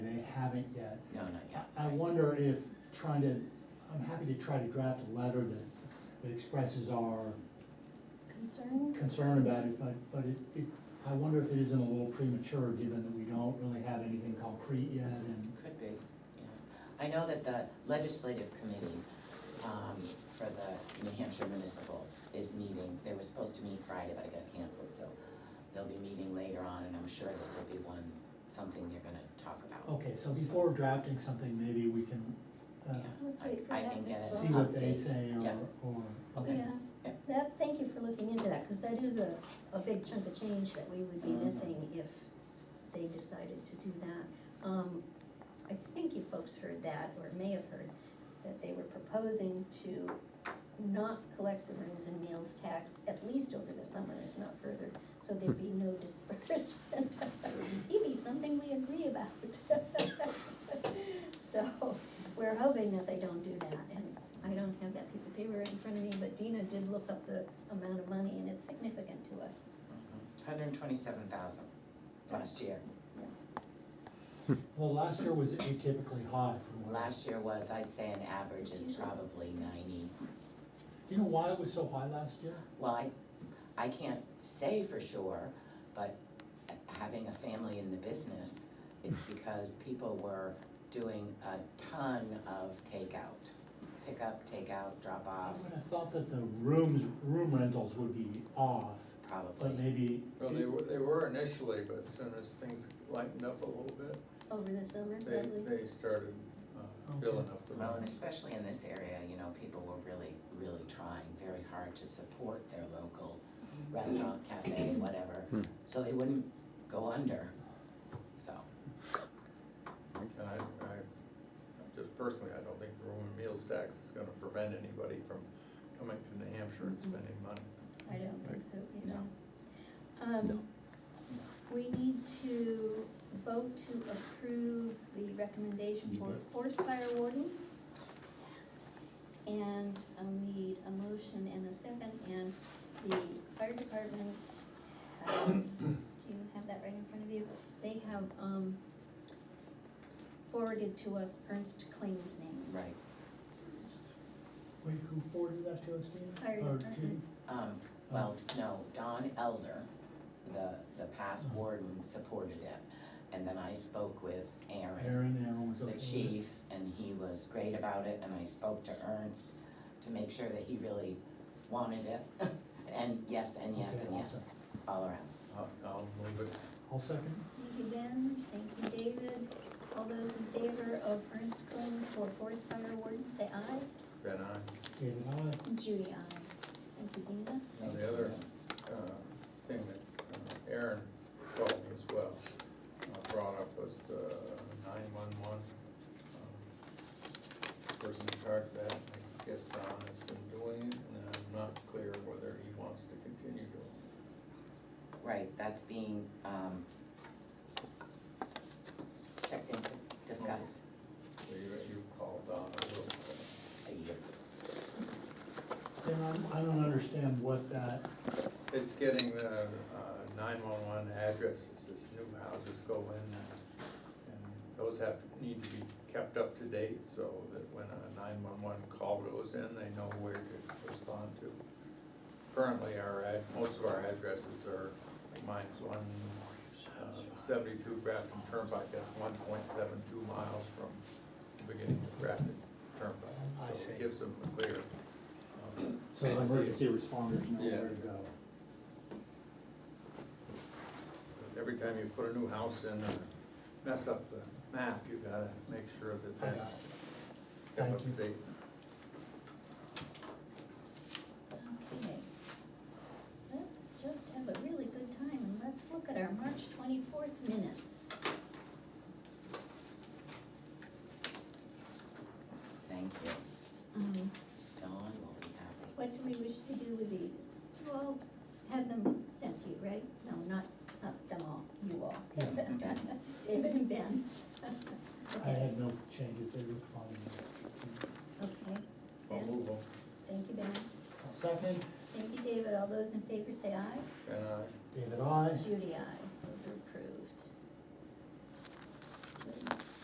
that. No, not yet. I I wonder if trying to, I'm happy to try to draft a letter that, that expresses our Concern? concern about it, but, but it, it, I wonder if it isn't a little premature, given that we don't really have anything concrete yet, and, Could be, yeah. I know that the legislative committee um, for the New Hampshire Municipal is meeting. They were supposed to meet Friday, but it got canceled, so they'll be meeting later on, and I'm sure this will be one, something they're gonna talk about. okay, so before drafting something, maybe we can, Oh, uh, Yeah, Let's I- wait for I that can get response. see what they Update, say, or, yeah. or. Okay. Yeah, Yeah. that, thank you for looking into that, because that is a, a big chunk of change that we would be Mhm. missing if they decided to do that. Um, I think you folks heard that, or may have heard, that they were proposing to not collect the rooms and meals tax, at least over the summer, if not further, so there'd be no disbursement. Maybe something we agree about. So, we're hoping that they don't do that, and I don't have that piece of paper in front of me, but Dina did look up the amount of money, and it's significant to us. Mm-hmm. Hundred and twenty-seven thousand last year. Well, last year was atypically high from what. I- Last year was, I'd say an average is probably ninety. Do you know why it was so high last year? Well, I, I can't say for sure, but having a family in the business, it's Hmm. because people were doing a ton of takeout. Pick up, takeout, drop I off, would have thought that the rooms, room rentals would be off, but probably. maybe. Well, they were, they were initially, but as soon as things lightened up a little bit, Over the summer, they, probably, they started uh, filling up the. Well, and especially in this area, you know, people were really, really trying very hard to support their local Hmm. restaurant, cafe, whatever, so they wouldn't go under, so. And I, I, just personally, I don't think the room and meals tax is gonna prevent anybody from coming to New Hampshire and spending money. I don't think so either. No. Um, we need to vote to approve the recommendation for forest fire warden. And I'll need a motion and a second, and the fire department, um, do you have that right in front of you? They have, um, forwarded to us Ernst Kling's name. Right, Wait, who forwarded that to us, Dan? Fire Or department. um, Well, no, Don Elder, the, the past warden, supported it. And then I spoke with to Aaron, Aaron, Aaron was okay. the with it. chief, and he was great about it, and I spoke to Ernst to make sure that he really wanted it. And yes, and yes, Okay, and yes, awesome. all around. I'll, Uh, I'll move it. I'll second. Thank you, Ben, thank you, David. All those in favor of Ernst Kling for forest fire warden, say aye. Then I, David, aye. Judy, aye. Thank you, Dina. Now the other- uh, thing that uh, Aaron called as well, uh, brought up was the nine-one-one. um, Person in charge of that, I guess Don has been doing it, and I'm not clear whether he wants to continue doing Right, that's being, um, checked into, discussed. it. So you, you called Don, I will call. Then I'm, I don't understand what that, It's getting the uh, nine-one-one addresses as new houses go in, and those have, need to be kept up to date, so that when a nine-one-one call goes in, they know where to respond to. Currently, our, ad- most of our addresses are, mine's one uh, seventy-two Grafton Turnpike, that's one point seven two miles from the beginning of Grafton Turnpike. I So see. it gives them a clear. um, so the emergency responders know Yeah. where to go. Every time you put a new house in, and mess up the map, you gotta make sure that that's kept up to Thank you. date. Okay. Let's just have a really good time and let's look at our March twenty-fourth minutes. Thank you. Um, Don will be happy. What do we wish to do with these? You all had them sent to you, right? No, not, not them all, you all. Yeah. David and Ben. I Okay. had no changes, they were fine. Okay, I'll move on. thank you, Ben. I'll second. Thank you, David. All those in favor say aye. And uh, I, David, aye. Judy, aye. Those are approved.